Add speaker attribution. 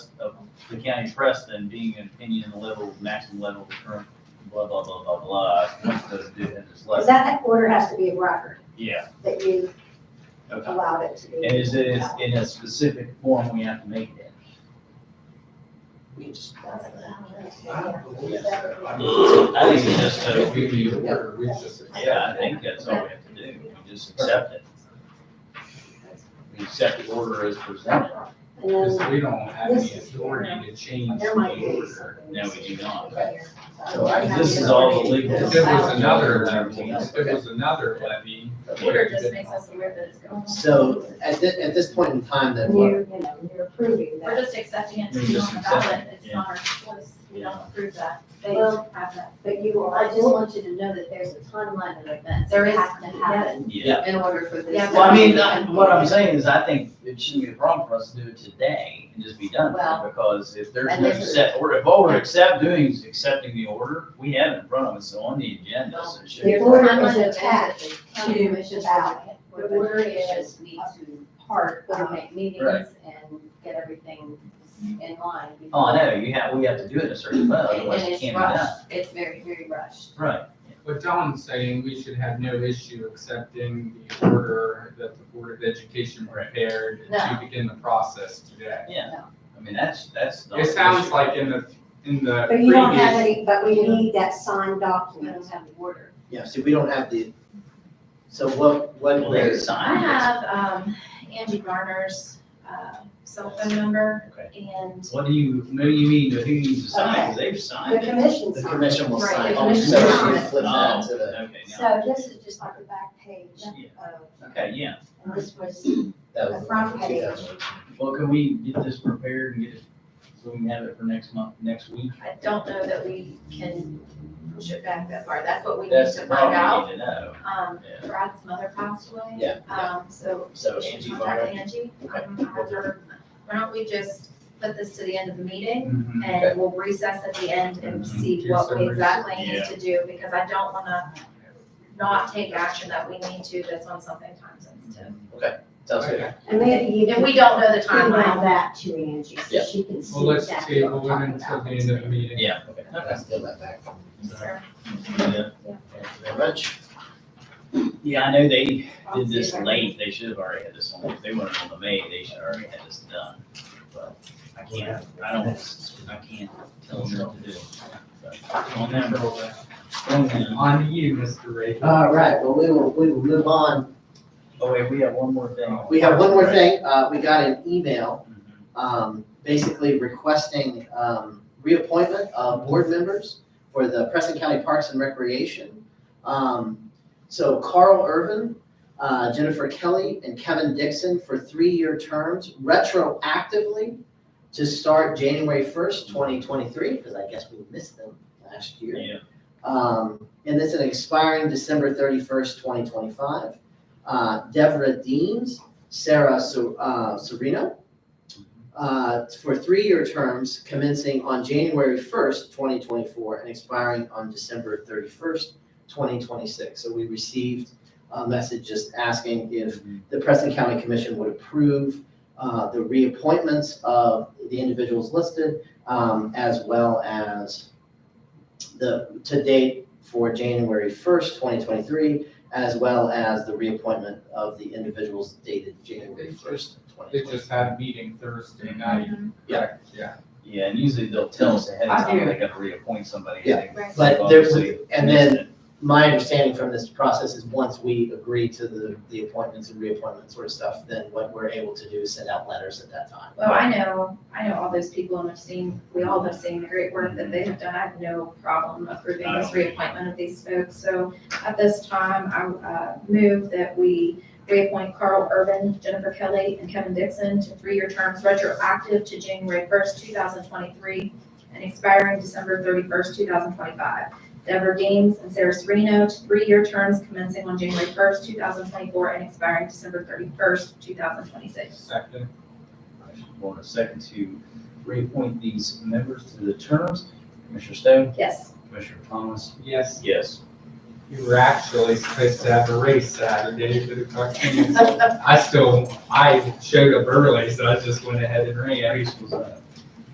Speaker 1: the county precedent being an opinion level, maximum level of current, blah, blah, blah, blah, blah. Once those do, then it's
Speaker 2: Because
Speaker 1: less,
Speaker 2: that, that order has to be a record
Speaker 1: yeah,
Speaker 2: that you
Speaker 1: okay.
Speaker 2: allowed it to be.
Speaker 1: And is it in a specific form we have to make it?
Speaker 2: Yeah.
Speaker 1: I think it's just a,
Speaker 3: If we need a word, we just-
Speaker 1: yeah, I think that's all we have to do, we just accept it. We accept the order as presented,
Speaker 2: And
Speaker 3: Because
Speaker 2: then
Speaker 3: we don't have any authority to change the
Speaker 2: there might be
Speaker 3: order.
Speaker 2: something.
Speaker 1: no, we do not.
Speaker 2: So I have
Speaker 1: This is
Speaker 2: the
Speaker 1: all the
Speaker 2: authority
Speaker 1: legal.
Speaker 2: to
Speaker 3: If it was
Speaker 2: decide.
Speaker 3: another levy, if it was another levy.
Speaker 4: The order just makes us aware that it's going.
Speaker 5: So at thi- at this point in time, then
Speaker 2: And
Speaker 5: what,
Speaker 2: You're, you know, you're approving
Speaker 4: We're
Speaker 2: that,
Speaker 4: just accepting it to
Speaker 1: We're
Speaker 4: be
Speaker 1: just
Speaker 4: on the ballot,
Speaker 1: accepting it,
Speaker 4: it's not our choice, we don't approve that, they
Speaker 6: Well,
Speaker 4: have that.
Speaker 2: but you
Speaker 6: I
Speaker 2: are.
Speaker 6: just want you to know that there's a timeline of events
Speaker 4: There
Speaker 6: that
Speaker 4: is-
Speaker 6: have to happen
Speaker 1: Yeah,
Speaker 6: in order for this.
Speaker 4: Yeah,
Speaker 1: well, I mean, I- what I'm saying is I think it shouldn't be a problem for us to do it today and just be done with it.
Speaker 6: Well,
Speaker 1: Because if there's
Speaker 6: and
Speaker 1: no
Speaker 6: this is-
Speaker 1: set order, if all we're accept doing is accepting the order, we have it in front of us, so on the agenda, so it should.
Speaker 2: The
Speaker 1: be-
Speaker 2: order is
Speaker 6: Timeline of
Speaker 2: attached
Speaker 6: events that the county
Speaker 2: to
Speaker 6: commissions
Speaker 2: the ballot.
Speaker 6: or
Speaker 2: The order
Speaker 6: commissions
Speaker 2: is
Speaker 6: Need to part,
Speaker 2: of-
Speaker 6: coordinate meetings
Speaker 1: Right.
Speaker 6: and get everything in line.
Speaker 1: Oh, I know, you have, we have to do it in a certain way,
Speaker 6: And-
Speaker 1: otherwise
Speaker 6: And
Speaker 1: it can't be
Speaker 6: it's
Speaker 1: done.
Speaker 6: rushed, it's very, very rushed.
Speaker 1: Right,
Speaker 3: But Dawn's saying we should have no issue accepting the order that the Board of Education prepared to
Speaker 6: No.
Speaker 3: begin the process today.
Speaker 1: yeah. I mean, that's, that's. not
Speaker 3: It sounds
Speaker 1: an
Speaker 3: like in the, in the
Speaker 2: But you don't have
Speaker 3: previous,
Speaker 2: any, but we need that signed
Speaker 6: We
Speaker 2: document.
Speaker 6: don't have the order.
Speaker 5: yeah, see, we don't have the, so what,
Speaker 1: issue.
Speaker 5: what
Speaker 1: Well, they
Speaker 5: is,
Speaker 4: I
Speaker 1: signed it.
Speaker 4: have, um, Angie Garner's, uh, cell phone number
Speaker 1: Okay.
Speaker 4: and
Speaker 1: What do you, what do you mean, who needs to sign, because they've
Speaker 2: The
Speaker 1: signed it.
Speaker 2: commission
Speaker 5: the
Speaker 2: signed.
Speaker 5: commission will
Speaker 6: Right,
Speaker 5: sign.
Speaker 6: the
Speaker 5: Oh,
Speaker 6: commission
Speaker 5: so
Speaker 6: will
Speaker 5: we
Speaker 6: sign
Speaker 5: can
Speaker 6: it.
Speaker 5: Flip that
Speaker 1: Oh,
Speaker 5: to the,
Speaker 1: Okay, now,
Speaker 2: So this is just like the back page
Speaker 1: Yeah.
Speaker 2: of,
Speaker 1: okay, yeah.
Speaker 2: and this was
Speaker 5: that
Speaker 2: the
Speaker 5: was
Speaker 2: front
Speaker 5: two
Speaker 2: page.
Speaker 5: thousand.
Speaker 1: Well, can we get this prepared and get it, so we can have it for next month, next week?
Speaker 4: I don't know that we can push it back that far, that's what we need
Speaker 1: That's
Speaker 4: to
Speaker 1: the
Speaker 4: find out.
Speaker 1: problem we need to know.
Speaker 4: Um,
Speaker 1: Yeah.
Speaker 4: Brad's mother passed away.
Speaker 5: Yeah, yeah.
Speaker 4: Um, so
Speaker 5: So
Speaker 4: we should
Speaker 5: Angie
Speaker 4: contact
Speaker 5: Varner,
Speaker 4: Angie.
Speaker 5: Okay.
Speaker 4: Um, have her- Why don't we just put this to the end of the meeting?
Speaker 1: Mm-hmm. Mm,
Speaker 3: Mhm.
Speaker 5: Okay.
Speaker 4: And we'll recess at the end and
Speaker 1: Mhm.
Speaker 4: see
Speaker 3: Do
Speaker 4: what
Speaker 3: some
Speaker 4: we exactly
Speaker 1: research.
Speaker 4: need to do, because I don't wanna not take action that we need to that's on something time sensitive.
Speaker 5: sounds good.
Speaker 3: Okay.
Speaker 2: and maybe you
Speaker 4: And
Speaker 2: can
Speaker 4: we don't know the
Speaker 2: email
Speaker 4: timeline.
Speaker 2: that to Angie
Speaker 5: Yeah.
Speaker 2: so she can
Speaker 3: Well,
Speaker 2: see
Speaker 3: let's
Speaker 2: exactly what
Speaker 3: table
Speaker 2: we're
Speaker 3: it
Speaker 2: talking
Speaker 3: until
Speaker 2: about.
Speaker 3: the end of the meeting.
Speaker 1: Yeah, okay.
Speaker 5: Let's get that back.
Speaker 4: So-
Speaker 1: Yeah.
Speaker 5: Thank you very much.
Speaker 1: Yeah, I know they did this late, they should have already had this on, if they went on the May, they should already had this done. But I can't, I don't, I can't tell them what to do. But On them, roll that. On them.
Speaker 3: On to you, Mr. Ray.
Speaker 5: All right, well, we will, we will move on.
Speaker 1: Oh wait, we have one more thing.
Speaker 5: We have one more
Speaker 1: Right.
Speaker 5: thing. Uh, we got an email
Speaker 1: Mhm.
Speaker 5: um, basically requesting, um, reappointment of board members for the Preston County Parks and Recreation. Um, so Carl Irvin, uh, Jennifer Kelly, and Kevin Dixon for three-year terms retroactively to start January first, twenty twenty-three, because I guess we missed them last year.
Speaker 1: Yeah.
Speaker 5: Um, and it's an expiring December thirty-first, twenty twenty-five. Uh, Deborah Deans, Sarah Ser- uh, Serino, uh, for three-year terms commencing on January first, twenty twenty-four, and expiring on December thirty-first, twenty twenty-six. So we received a message just asking if the Preston County Commission would approve uh, the reappointments of the individuals listed, um, as well as the, to date for January 1st, 2023, as well as the reappointment of the individuals dated January 1st,
Speaker 3: They
Speaker 5: 2023.
Speaker 3: just had a meeting Thursday night. Correct, Yeah.
Speaker 1: Yeah, and usually they'll tell us ahead of
Speaker 3: I
Speaker 1: time,
Speaker 3: do.
Speaker 1: they gotta reappoint somebody.
Speaker 5: Yeah.
Speaker 1: They-
Speaker 4: Right.
Speaker 5: But
Speaker 1: they've
Speaker 5: there's,
Speaker 1: obviously
Speaker 5: and
Speaker 1: missed
Speaker 5: then
Speaker 1: it.
Speaker 5: my understanding from this process is once we agree to the, the appointments and reappointments sort of stuff, then what we're able to do is send out letters at that time.
Speaker 4: Well, I know, I know all those people and I've seen, we all have seen the great work that they have done. I have no problem approving this reappointment of these folks. So at this time, I uh, move that we reappoint Carl Urban, Jennifer Kelly, and Kevin Dixon to three-year terms retroactive to January first, two thousand twenty-three, and expiring December thirty-first, two thousand twenty-five. Deborah Gaines and Sarah Serino to three-year terms commencing on January first, two thousand twenty-four, and expiring December thirty-first, two thousand twenty-six.
Speaker 3: Second.
Speaker 1: I should want a second to reappoint these members to the terms. Commissioner Stone?
Speaker 4: Yes.
Speaker 1: Commissioner Thomas?
Speaker 3: Yes,
Speaker 1: Yes.
Speaker 3: you were actually supposed to have a race Saturday for the Buccaneers. I still, I showed up early, so I just went ahead and ran.
Speaker 1: Grace was up.